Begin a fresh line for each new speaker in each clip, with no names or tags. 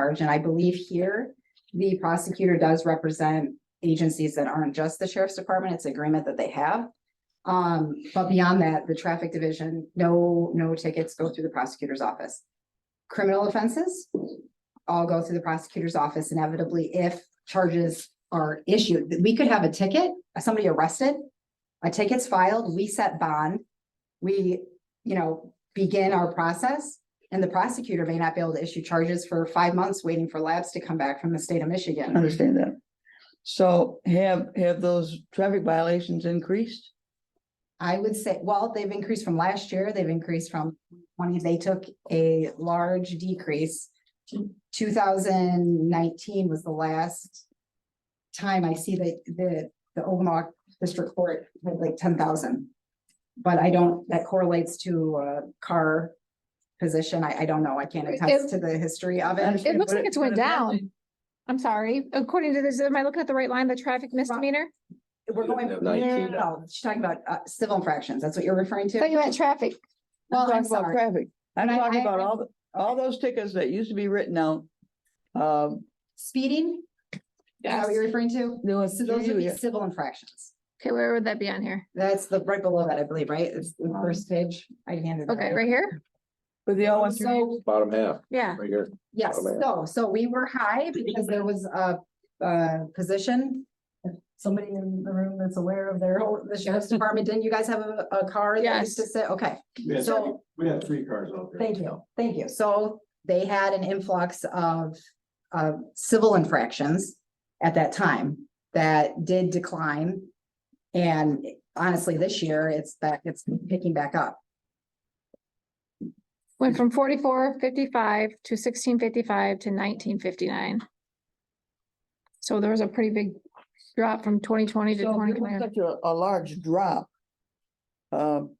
charge, and I believe here, the prosecutor does represent agencies that aren't just the sheriff's department, it's agreement that they have. Um, but beyond that, the traffic division, no, no tickets go through the prosecutor's office. Criminal offenses, all go through the prosecutor's office inevitably if charges are issued. We could have a ticket, somebody arrested, a ticket's filed, we set bond, we, you know, begin our process. And the prosecutor may not be able to issue charges for five months waiting for labs to come back from the state of Michigan.
Understand that. So have, have those traffic violations increased?
I would say, well, they've increased from last year, they've increased from twenty, they took a large decrease. Two thousand nineteen was the last time I see that the, the Ogama District Court had like ten thousand. But I don't, that correlates to uh car position. I, I don't know. I can't attest to the history of
I
it.
understand,
looks
but
like it's went
but apparently-
I'm sorry, according to this, am I looking at the right line, the traffic misdemeanor?
We're going, no, no,
Nineteen.
no, she's talking about uh, civil infractions. That's what you're referring
I thought
to?
you meant traffic.
I'm
Well, I'm
talking about
sorry.
traffic. I'm
But I-
talking
I-
about all, the all those tickets that used to be written out. Um,
Speeding? Is
Oh,
that what you're referring to?
there was.
So those would be
yeah.
civil infractions.
Okay, where would that be on here?
That's the, right below that, I believe, right? It's the first page. I handed. it
Uh-huh. Okay,
out.
right here?
But they all went through.
So,
Bottom half,
Yeah.
right here.
yes,
Oh, man.
so, so we were high because there was a, a position. If Somebody in the room that's aware of their, whole- the sheriff's department, didn't you guys have a, a car that used to sit? Okay,
We have
so.
we have three cars out
Thank you, thank you. So they had an influx of, of civil infractions at that time that did decline. And honestly, this year, it's back, it's picking back up.
Went from forty-four fifty-five to sixteen fifty-five to nineteen fifty-nine. So there was a pretty big drop from twenty twenty to
So
twenty
if it was
twenty.
Such a, a large drop. Um.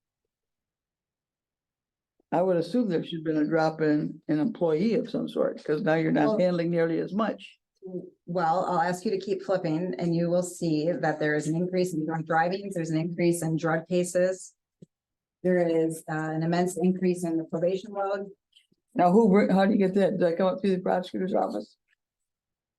I would assume there should have been a drop in, an employee of some sort, because now you're
Well-
not handling nearly as much.
Well, I'll ask you to keep flipping and you will see that there is an increase in drunk drivings, there's an increase in drug cases. There is uh, an immense increase in the probation load
Now, who, br- how do you get that? Does that come up through the prosecutor's office?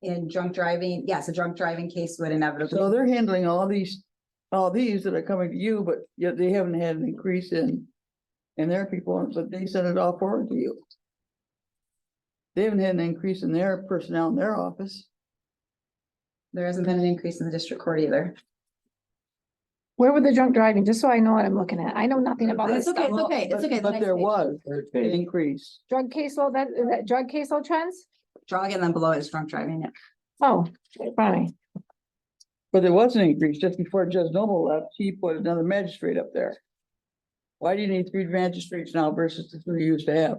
in drunk driving. Yes, a drunk driving case would
So
inevitably.
they're handling all these, all these that are coming to you, but yet they haven't had an increase in, in their people, but they send it all forward to you. They haven't had an increase in their personnel in their office.
There hasn't been an increase in the district court either.
Where were the drunk driving? Just so I know what I'm looking at. I know nothing about this
That's okay,
stuff.
it's okay, it's
But-
okay, it's
But
next
there
page.
was an
Thirteen.
increase.
Drug caseload, that, is that drug caseload trends?
Drunk and then below is drunk driving.
Oh, funny.
But there was an increase just before Judge Noble left, he put another magistrate up there. Why do you need three magistrates now versus the three you used to have?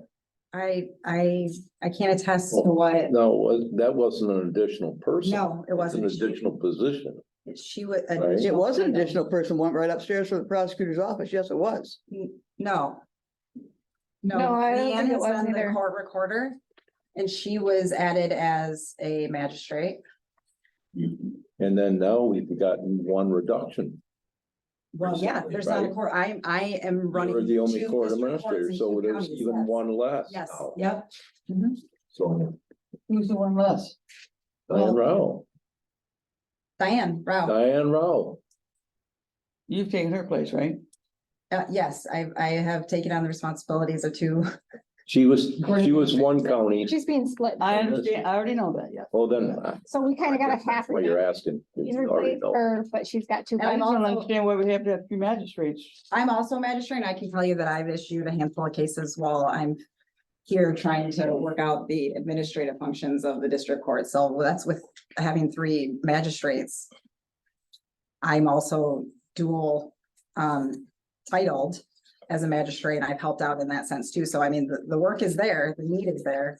I, I, I can't attest to what,
No, it was, that wasn't an additional person.
no, it
It's an
wasn't. She-
additional position.
She was.
Right.
It was an additional person went right upstairs to the prosecutor's office, yes, it was.
No. No,
No, I don't
Leanne
think it
has
was
been the
either.
court recorder, and she was added as a magistrate.
And then now we've gotten one reduction.
Well, yeah,
Recently,
there's not a
right?
court, I, I am running.
We're the only
two
court
district courts
administrator,
in
so
two
there's
counties,
even
yes.
one less.
Yes,
now.
yep.
So, uh,
Who's the one less?
Diane Rao,
Diane, Rao,
Diane Rao.
You've taken her place, right?
Uh, yes, I, I have taken on the responsibilities of two.
She was,
Court
she was one county.
She's being split.
I
And this-
understand, I already know that, yeah.
Well, then. I-
So we kind of got
that's
a half.
Why
of
you're
it.
asking. 'cause
He's
you already
replaced
know.
her, but she's got two.
And I'm
I just
guys.
don't
also-
understand why we have to have two magistrates.
I'm also a magistrate, and I can tell you that I've issued a handful of cases while I'm here trying to work out the administrative functions of the district court, so that's with having three magistrates. I'm also dual um titled as a magistrate, and I've helped out in that sense too, so I mean, the, the work is there, the need is there.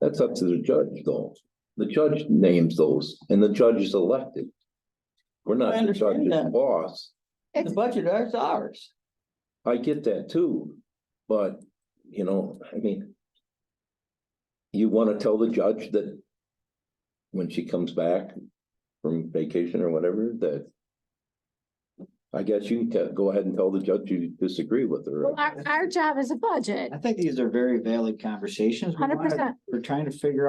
That's up to the judge, though. The judge names those, and the judge is elected. We're not
I
the
understand
judge's
that.
boss.
The budget is ours.
I get that too, but, you know, I mean. You wanna tell the judge that. When she comes back from vacation or whatever, that. I guess you can go ahead and tell the judge you disagree with her.
Well, our, our job is a budget,
I think these are very valid conversations. We
hundred
wanna-
percent.
We're trying to figure out.